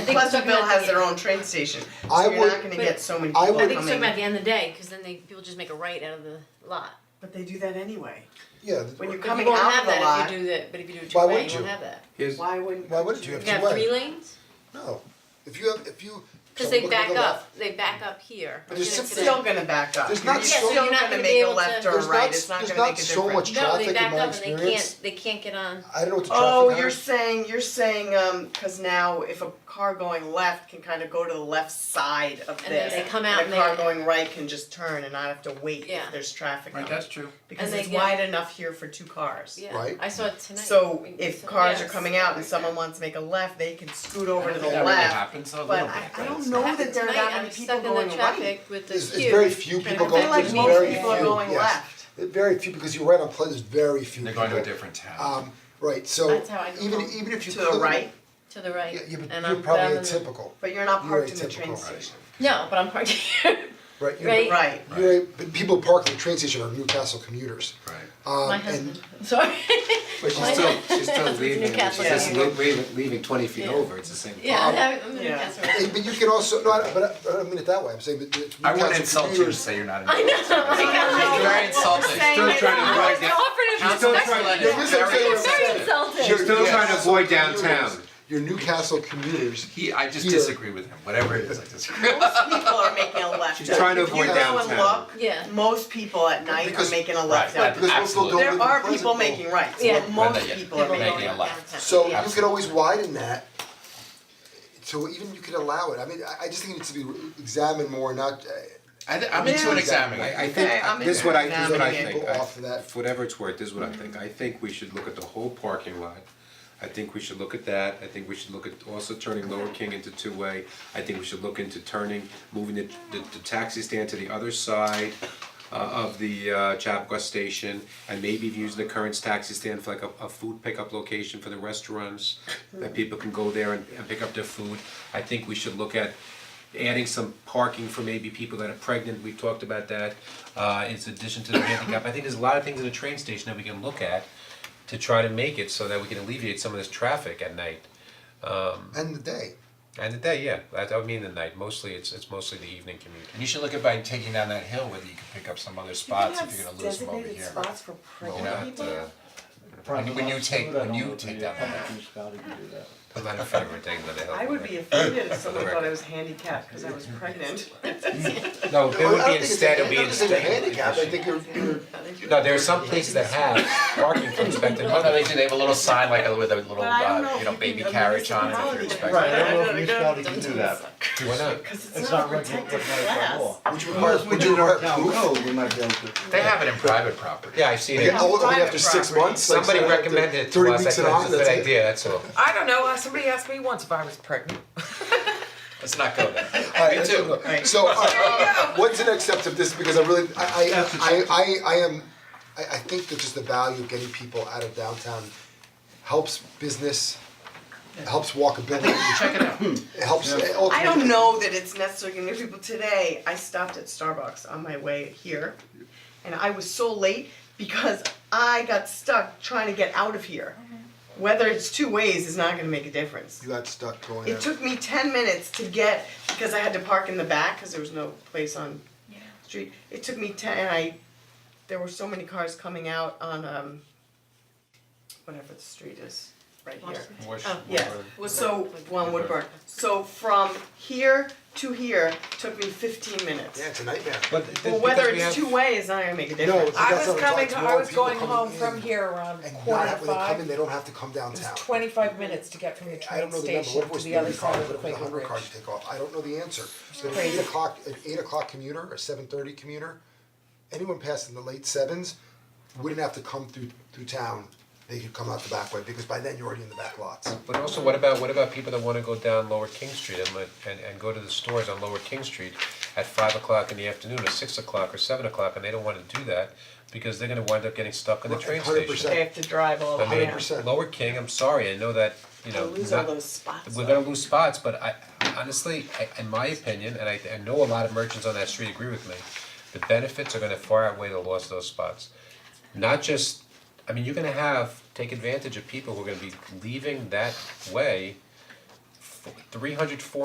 think it's talking Pleasantville about has the- their own train station, I so you're would- not gonna But- get so many I people coming. would- I think it's talking about the end of the day, cause then they, people just make a right out of the lot. But they do that anyway. Yeah, When you're But you coming won't out have of the that lot, if you do that, but if you do it Why two way, wouldn't you won't you? have that. Here's, why wouldn't? why wouldn't you? You If can you have three went, lanes, no, if you have, if you. cause so they look at back the left. up, they back up here. But I'm there's gonna It's six- say- still gonna back up. There's not You're so- Yeah, so still you're not gonna be make a able to- left or a There's right, not- it's not there's gonna make a not difference. so much No, they Traffic, in back my up and they experience- can't, they can't get on, I don't know what the Oh, traffic you're patterns- saying, you're saying, um, cause now if a car going left can kind of go to the left side of this. And then they come out and a car they- going right can just turn and not have to wait Yeah. if there's traffic on right, it. that's true. Because And they it's get- wide enough here for two cars. yeah, Right. I saw it tonight. So We- if so- cars are yes. coming out and someone wants to make a left, they can scoot over to the I don't think that really left. happens, a little But bit, I, I but don't it's know not. that there are Tonight, that I'm many people stuck in the going right. traffic with the It's, queue. it's very few people to going, I feel back like there's up. most very few, yes. people are going left. Very few, because you're right on Pleasant, there's very few They're people. going to a different town. Um, right, so That's how I go even, home. even if you. To the couldn't- right, To the right, Yeah, yeah, but and you're I'm probably down the- atypical, but you're not You're parked in the atypical, train right. station. No, but I'm parked here, right? You're- Right. Right. You're, but people park at the train station are Newcastle commuters. Right. Um, my and- husband, sorry, But she's Why still, not? she's still That's what leaving, she's Newcastle just is. lo- leaving, leaving twenty feet Yeah. over, it's the same. yeah, Um, I'm- I'm in yeah. Newcastle. Hey, but you can also, no, I don't- but I, I don't mean it that way, I'm saying that it's I wouldn't Newcastle insult you to commuters- say you're not an I know, my God. It's very insulting. Still trying I was offered a Still respect- trying to. Yeah, this is very what I'm Very saying. insulting. You're Still trying to avoid Newcastle downtown. commuters. You're Newcastle commuters. He, I just Here. disagree with him, whatever it is, I disagree. People are making a left. She's trying to If you avoid go and downtown. look, Yeah. Most people at night are Because- making a Right, left right, out. Because most people absolutely. don't live There in are people Pleasantville. making rights, Yeah. but most Right, yeah. people are People making making a left. left. Downtown. So Yeah. you could always widen that. So even you could allow it, I mean, I I just think it needs to be re- examined more, not, uh, I, th- I'm into an Yeah. examining, I, I Okay, think, I'm this is what I, this is what I examining it. think, I, Off of that. for whatever it's worth, this is what I think, I think we should look at the whole parking lot. I think we should look at that, I think we should look at also turning Lower King into two-way, I think we should look into turning, moving the, the, the taxi stand to the other side uh, of the, uh, Chapua station, and maybe use the current taxi stand for like a, a food pickup location for the restaurants, that people can go there and, and pick up their food. I think we should look at adding some parking for maybe people that are pregnant, we've talked about that, uh, in addition to the handicap, I think there's a lot of things in the train station that we can look at to try to make it so that we can alleviate some of this traffic at night. end of the day. And the day, yeah, that, I mean the night, mostly, it's, it's mostly the evening commute. And you should look at by taking down that hill, whether you can pick up some other spots, if you're gonna lose them over here. for You're not, uh, When When you take- when you take that one out. Scotty can do that. I'm not in favor of taking down the hill. I would be offended if someone thought I was handicapped because I was pregnant. No, it Well, I don't would be think it's a- instead, it would I be don't think it's a instead. handicap, I think you're, you're, No, there are some places that have parking for expected Oh, no, they do, they have a little sign like a, with a little, But I don't know if uh, you you know, can- baby I mean, carriage it's a on it if you're holiday. expecting. Right, I don't Yeah. know if New Scotty can do that. Why not? Because It's it's not not a recognized protected by class. law. which requires, We which do require our town proof. code, Oh, we might be able to. They have it in private property. Yeah, I've seen Yeah, it. all- only private after six property. months, like, Somebody so after recommended it to thirty us, I weeks and thought on, it's a good that's it. idea, that's all. I don't know. uh, Somebody asked me once if I was pregnant. Let's not go there. Alright, Me let's too. go. So, alright, what's the next step of this, because I really, I, I, I, I, I am, I, I think that just the value of getting people out of downtown helps business, helps walkability, Check it out. it helps, it ultimately. I don't know that it's necessarily gonna be people today. I stopped at Starbucks on my way here and I was so late because I got stuck trying to get out of here. Whether it's two ways is not gonna make a difference. You got stuck going It out. took me ten minutes to get, because I had to park in the back, cause there was no place on the street. It took me ten, and I, there were so many cars coming out on, um, whatever the street is, right here. Yes, so, one Woodburn, so from here to here took me fifteen minutes. Yeah, it's a nightmare. But Well, whether it's two way is not gonna make a difference. I I got was something coming. about I was tomorrow, going people home coming from in here around And quarter not to have, when they come in, five. they don't have to come It downtown. was twenty-five minutes to get from the I don't know train the number, station what to was the other thirty side cars, of the what was Quaker hundred Ridge. cars to take off, I don't know the answer. So an Crazy. eight o'clock, an eight o'clock commuter, a seven thirty commuter, anyone passing the late sevens wouldn't have to come through through town, they could come out the back way, because by then you're already in the back lots. But also, what about, what about people that wanna go down Lower King Street and, let- and, and go to the stores on Lower King Street at five o'clock in the afternoon, or six o'clock, or seven o'clock, and they don't wanna do that, because they're gonna wind up getting stuck in the Right, train 100%. station. They have to drive all the I way mean, out. 100%. Lower King, I'm sorry, I know that, you know, They'll lose all not- those spots. we're gonna lose spots, but I honestly, I in my opinion, and I I know a lot of merchants on that street agree with me, the benefits are gonna far outweigh the loss of those spots. Not just, I mean, you're gonna have, take advantage of people who are gonna be leaving that way three hundred four